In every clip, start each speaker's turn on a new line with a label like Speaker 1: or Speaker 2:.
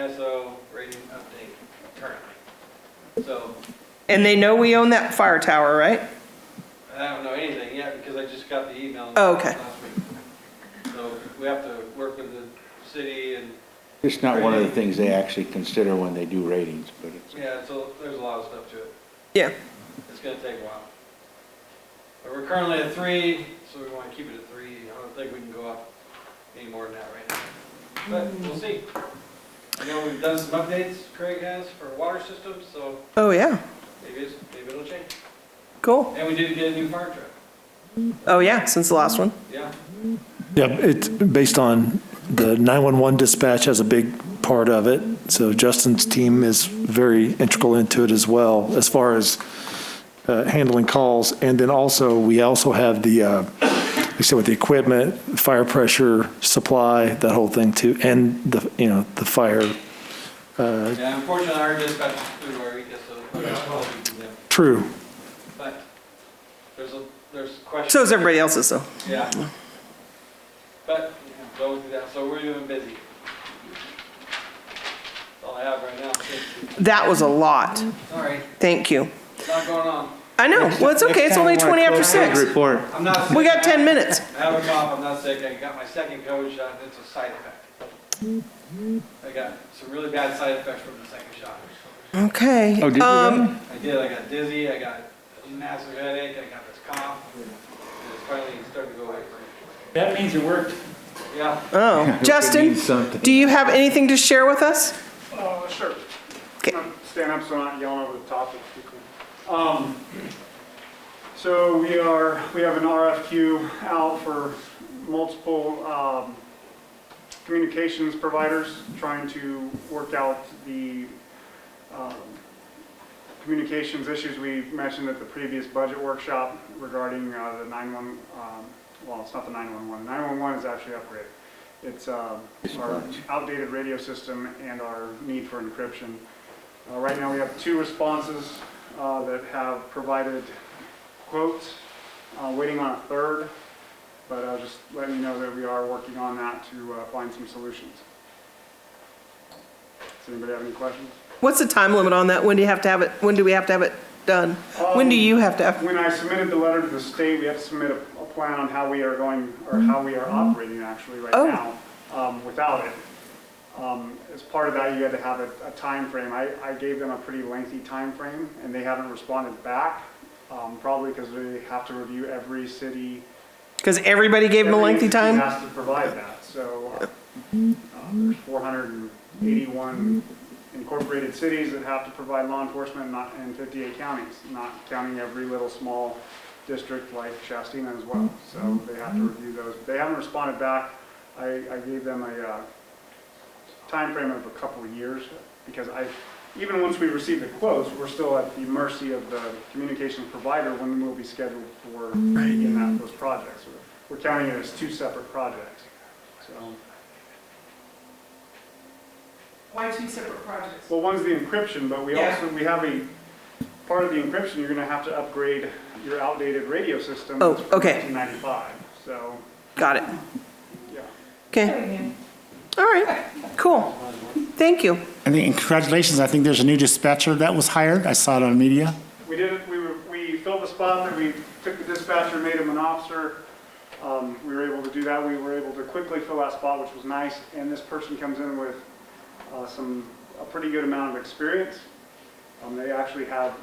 Speaker 1: ISO rating update currently. So
Speaker 2: And they know we own that fire tower, right?
Speaker 1: I don't know anything yet because I just got the email.
Speaker 2: Oh, okay.
Speaker 1: last week. So we have to work with the city and,
Speaker 3: It's not one of the things they actually consider when they do ratings, but it's,
Speaker 1: yeah, so there's a lot of stuff to it.
Speaker 2: Yeah.
Speaker 1: It's gonna take a while. But we're currently at three, so we wanna keep it at three. I don't think we can go up any more than that right now. But we'll see. I know we've done some updates, Craig has, for water systems, so
Speaker 2: Oh, yeah.
Speaker 1: maybe it's, maybe it'll change.
Speaker 2: Cool.
Speaker 1: And we did get a new fire truck,
Speaker 2: Oh, yeah, since the last one.
Speaker 1: yeah.
Speaker 4: Yeah, it's based on the 911 dispatch has a big part of it. So Justin's team is very integral into it as well, as far as uh, handling calls. And then also, we also have the, uh, like I said, with the equipment, fire pressure, supply, that whole thing too, and the, you know, the fire. uh,
Speaker 1: Yeah, unfortunately, our dispatch is through our ECA, so we don't know what we can do.
Speaker 4: True.
Speaker 1: But there's a, there's questions.
Speaker 2: So is everybody else's, though.
Speaker 1: Yeah. But, yeah, going through that, so we're even busy. That's all I have right now. Thank you.
Speaker 2: That was a lot.
Speaker 1: Sorry,
Speaker 2: Thank you.
Speaker 1: it's not going on.
Speaker 2: I know. Well, it's okay. It's only 20 after 6.
Speaker 3: report.
Speaker 1: I'm not.
Speaker 2: We
Speaker 1: sick.
Speaker 2: got 10 minutes.
Speaker 1: I have a cough, I'm not sick, I got my second COVID shot, and it's a side effect. I got some really bad side effects from the second shot.
Speaker 2: Okay.
Speaker 3: Oh, did you
Speaker 2: Um,
Speaker 3: really?
Speaker 1: I did, I got dizzy, I got a massive headache, I got this cough, and it's finally starting to go away for me.
Speaker 5: That means it worked.
Speaker 1: Yeah,
Speaker 2: Oh,
Speaker 3: It
Speaker 2: Justin,
Speaker 3: means something.
Speaker 2: do you have anything to share with us?
Speaker 6: Uh, sure.
Speaker 2: Okay.
Speaker 6: Um, Stand up so I'm not yelling over the top of people. Um, so we are, we have an RFQ out for multiple, um, communications providers trying to work out the, um, communications issues we mentioned at the previous budget workshop regarding, uh, the 911, um, well, it's not the 911. 911 is actually upgraded. It's, um, our outdated radio system and our need for encryption. Uh, Right now, we have two responses uh, that have provided quotes, uh, waiting on a third, but I'll just let you know that we are working on that to uh, find some solutions. Does anybody have any questions?
Speaker 2: What's the time limit on that? When do you have to have it, when do we have to have it done? When do you have to have,
Speaker 6: When I submitted the letter to the state, we have to submit a a plan on how we are going, or how we are operating actually right
Speaker 2: Oh.
Speaker 6: now um, without it. Um, As part of that, you had to have a a timeframe. I I gave them a pretty lengthy timeframe, and they haven't responded back, um, probably because they have to review every city.
Speaker 2: because everybody gave him a
Speaker 6: every
Speaker 2: lengthy
Speaker 6: entity
Speaker 2: time?
Speaker 6: has to provide that, so uh, uh, there's 481 incorporated cities that have to provide law enforcement, not, and 58 counties, not counting every little small district like Shastina as well, so they have to review those. They haven't responded back. I, I gave them a uh, timeframe of a couple of years, because I, even once we receive the quotes, we're still at the mercy of the communications provider when we'll be scheduled for in that, those projects. We're counting it as two separate projects, so.
Speaker 7: Why two separate projects?
Speaker 6: Well, one's the encryption, but we
Speaker 7: Yeah.
Speaker 6: also, we have a, part of the encryption, you're gonna have to upgrade your outdated radio system.
Speaker 2: Oh,
Speaker 6: that's from
Speaker 2: okay.
Speaker 6: 1995, so,
Speaker 2: Got it.
Speaker 6: yeah.
Speaker 2: Okay, all right, cool. Thank you.
Speaker 8: I think, and congratulations, I think there's a new dispatcher that was hired. I saw it on media.
Speaker 6: We did, it. we were, we filled the spot, that we took the dispatcher, made him an officer. Um, we were able to do that, we were able to quickly fill that spot, which was nice, and this person comes in with, uh, some, a pretty good amount of experience. Um, they actually have,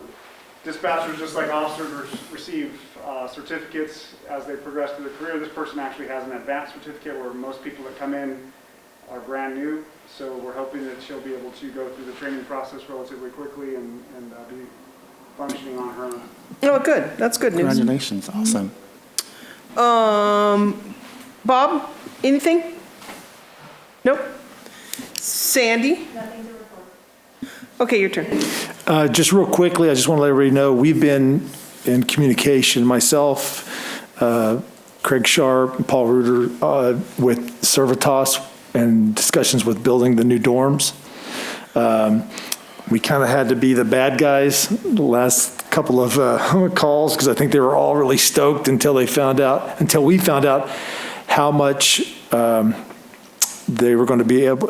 Speaker 6: dispatchers, just like officers, re- receive, uh, certificates as they progress through their career. This person actually has an advanced certificate where most people that come in are brand new, so we're hoping that she'll be able to go through the training process relatively quickly and, and uh, be functioning on her own.
Speaker 2: Oh, good, that's good news.
Speaker 8: Congratulations, awesome.
Speaker 2: Um, Bob, anything? Nope. Sandy?
Speaker 7: Nothing to report.
Speaker 2: Okay, your turn.
Speaker 4: Uh, Just real quickly, I just want to let everybody know, we've been in communication, myself, uh, Craig Sharp, Paul Reuter, uh, with Servitas and discussions with building the new dorms. Um, We kind of had to be the bad guys the last couple of uh, calls because I think they were all really stoked until they found out, until we found out how much um, they were going to be able,